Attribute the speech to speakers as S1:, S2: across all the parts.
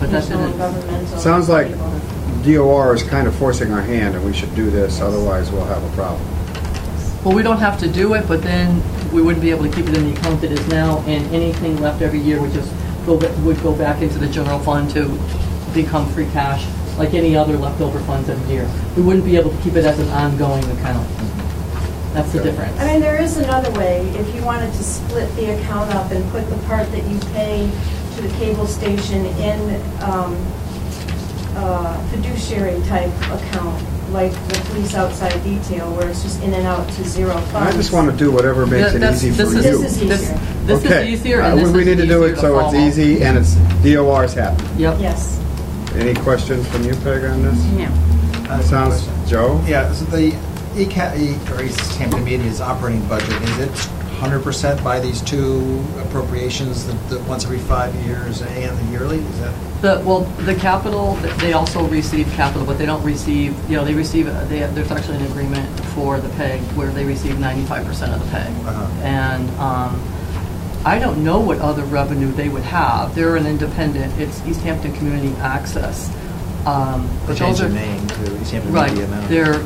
S1: That's it.
S2: non-governmental.
S3: Sounds like
S2: people.
S3: DOR is kind of forcing our hand, and we should do this, otherwise we'll have a problem.
S1: Well, we don't have to do it, but then we wouldn't be able to keep it in the account that is now, and anything left every year would just go, ba- would go back into the general fund to become free cash, like any other leftover funds every year. We wouldn't be able to keep it as an ongoing account. That's the
S3: Okay.
S1: difference.
S2: I mean, there is another way, if you wanted to split the account up and put the part that you pay to the cable station in um, uh, fiduciary type account, like the police outside detail, where it's just in and out to zero
S3: I
S2: funds.
S3: just want to do whatever makes it
S1: That's-
S3: easy for
S1: this
S3: you.
S1: is-
S2: This is easier.
S1: This is
S3: Okay.
S1: easier,
S3: Uh,
S1: and
S3: we-
S1: this is
S3: We need to do
S1: easier
S3: it so it's
S1: follow.
S3: easy, and it's, DOR's happy.
S1: Yep.
S2: Yes.
S3: Any questions from you, Peg, on this?
S4: No.
S5: Uh,
S3: Sounds, Joe?
S5: Yeah, so the ECA, E- or East Hampton Media's operating budget, is it 100% by these two appropriations, the, the once every five years and the yearly? Is that,
S1: The, well, the capital, they also receive capital, but they don't receive, you know, they receive, they, there's actually an agreement for the PEG where they receive ninety-five percent of the PEG.
S5: Uh-huh.
S1: And, um, I don't know what other revenue they would have. They're an independent, it's East Hampton Community Access. um,
S5: they
S1: but
S5: changed
S1: those are-
S5: the name to East Hampton
S1: Right,
S5: Media now?
S1: they're,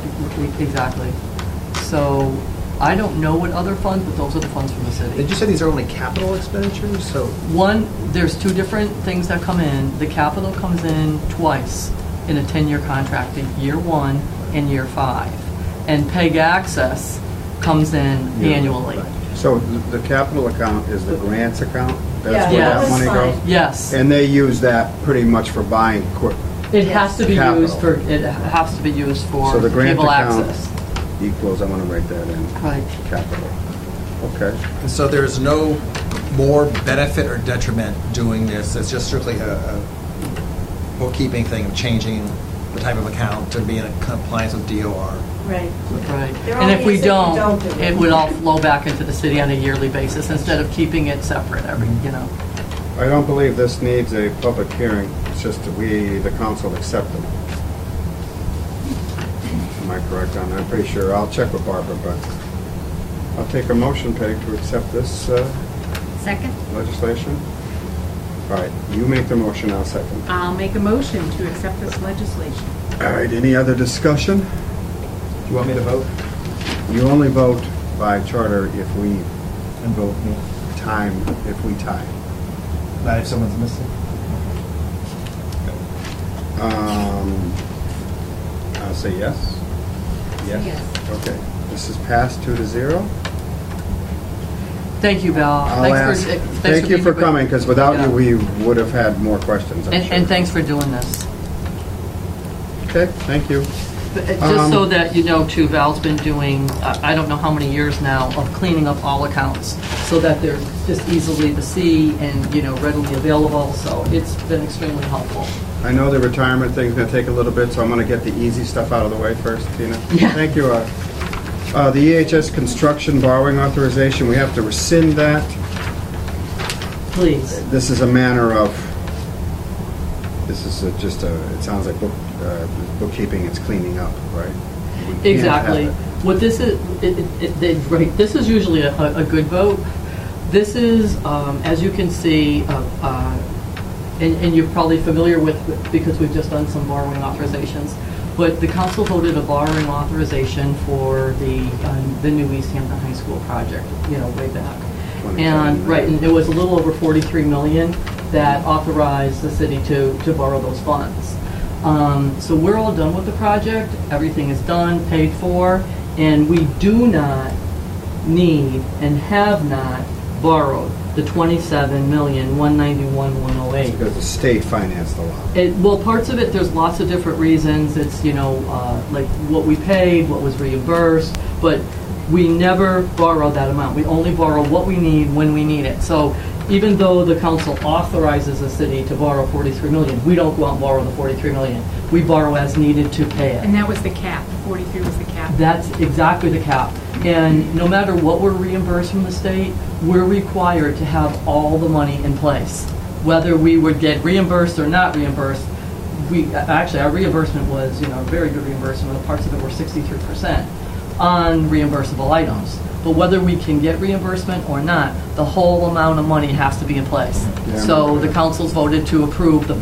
S1: exactly. So, I don't know what other funds, but those are the funds from the city.
S5: Did you say these are only capital expenditures? So,
S1: One, there's two different things that come in. The capital comes in twice in a 10-year contract, in year one and year five. And PEG access comes in
S3: Yeah.
S1: annually.
S3: So th- the capital account is the grants account? That's
S2: Yeah,
S3: where
S1: that
S3: that
S1: was
S3: money
S2: fine.
S3: goes?
S1: Yes.
S3: And they use that pretty much for buying equip-
S1: It has to be
S3: Capital.
S1: used for, it has to be used for
S3: So the grant
S1: cable
S3: account-
S1: access.
S3: equals, I want to write that in,
S1: Right.
S3: capital. Okay.
S5: and so there's no more benefit or detriment doing this, it's just strictly a- a bookkeeping thing of changing the type of account to be in compliance with DOR?
S2: Right.
S1: Right.
S2: There
S1: And if
S2: only
S1: we
S2: is if we
S1: don't,
S2: don't do it.
S1: it would all flow back into the city on a yearly basis instead of keeping it separate every, you know.
S3: I don't believe this needs a public hearing, it's just that we, the council, accept them. Am I correct on that? I'm pretty sure, I'll check with Barbara, but I'll take a motion, Peg, to accept this uh,
S4: Second,
S3: legislation. All right, you make the motion, I'll second.
S4: I'll make a motion to accept this legislation.
S3: All right, any other discussion?
S5: Do you want me to vote?
S3: You only vote by charter if we
S5: And vote no.
S3: time, if we tie.
S5: Not if someone's missing?
S3: Um, I'll say yes.
S4: Yes.
S3: Okay, this is passed two to zero.
S1: Thank you, Val.
S3: I'll
S1: Thanks
S3: ask,
S1: for- thanks
S3: thank you
S1: being
S3: for
S1: here, but-
S3: coming, because without
S1: Yeah.
S3: you, we would have had more questions, I'm
S1: And
S3: sure.
S1: and thanks for doing this.
S3: Okay, thank you.
S1: But uh, Just so
S3: Um,
S1: that you know too, Val's been doing, uh, I don't know how many years now, of cleaning up all accounts so that they're just easily to see and, you know, readily available, so it's been extremely helpful.
S3: I know the retirement thing's gonna take a little bit, so I'm gonna get the easy stuff out of the way first, Tina.
S1: Yeah.
S3: Thank you, uh, uh, the EHS construction borrowing authorization, we have to rescind that.
S1: Please.
S3: This is a manner of, this is a- just a, it sounds like book, uh, bookkeeping, it's cleaning up, right? We can't have
S1: Exactly.
S3: it.
S1: What this is, it, it- it, they, right, this is usually a, a- a good vote. This is, um, as you can see, uh, uh, and, and you're probably familiar with, because we've just done some borrowing authorizations, but the council voted a borrowing authorization for the, um, the new East Hampton High School project, you know, way back. And, right, and it was a little over 43 million that authorized the city to, to borrow those funds. Um, So we're all done with the project, everything is done, paid for, and we do not need and have not borrowed the 27 million, 191, 108.
S3: Because the state financed the law.
S1: It, well, parts of it, there's lots of different reasons. It's, you know, uh, like what we paid, what was reimbursed, but we never borrow that amount. We only borrow what we need when we need it. So even though the council authorizes the city to borrow 43 million, we don't go out and borrow the 43 million. We borrow as needed to pay it.
S4: And that was the cap, 43 was the cap.
S1: That's exactly the cap. And no matter what we're reimbursed from the state, we're required to have all the money in place. Whether we would get reimbursed or not reimbursed, we, actually, our reimbursement was, you know, very good reimbursement, the parts of it were sixty-three percent on reimbursable items. But whether we can get reimbursement or not, the whole amount of money has to be in place.
S3: Yeah.
S1: So the councils voted to approve the